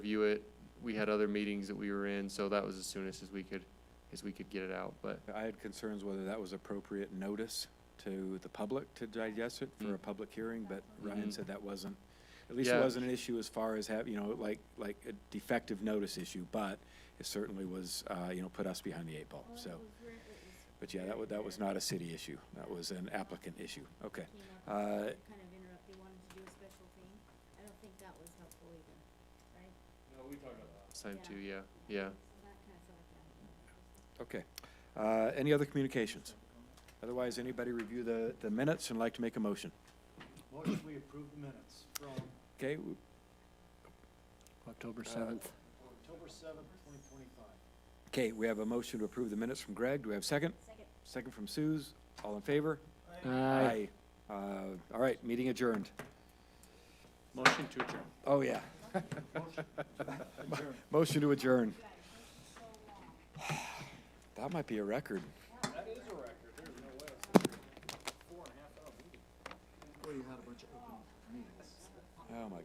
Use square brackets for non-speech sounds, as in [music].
review it. We had other meetings that we were in, so that was as soon as we could, as we could get it out, but I had concerns whether that was appropriate notice to the public to digest it for a Mm. public hearing, but Mhm. Ryan said that wasn't, at least it Yeah. wasn't an issue as far as have, you know, like, like a defective notice issue, but it certainly was, uh, you know, put us behind the eight ball, Well, so. it was re- it was But yeah, that was, that was not a city issue. That was an applicant issue. Okay. Uh, came up with Kind of interrupt, they wanted to do a special thing. I don't think that was helpful either, right? last time too, yeah, yeah. So that kind of felt Okay. like that. Uh, Any other communications? Otherwise, anybody review the, the minutes and like to make a motion? Motion, we approve the minutes from Okay, w- October Uh, 7th. October seventh, twenty twenty-five. okay, we have a motion to approve the minutes from Greg. Do we have a second? Second. Second from Suze. All in favor? Aye. Aye. Uh, All right, meeting adjourned. Motion to adjourn. Oh, yeah. Motion to adjourn. [sighs] That might be a record. Well, you had a bunch of open meetings. Oh, my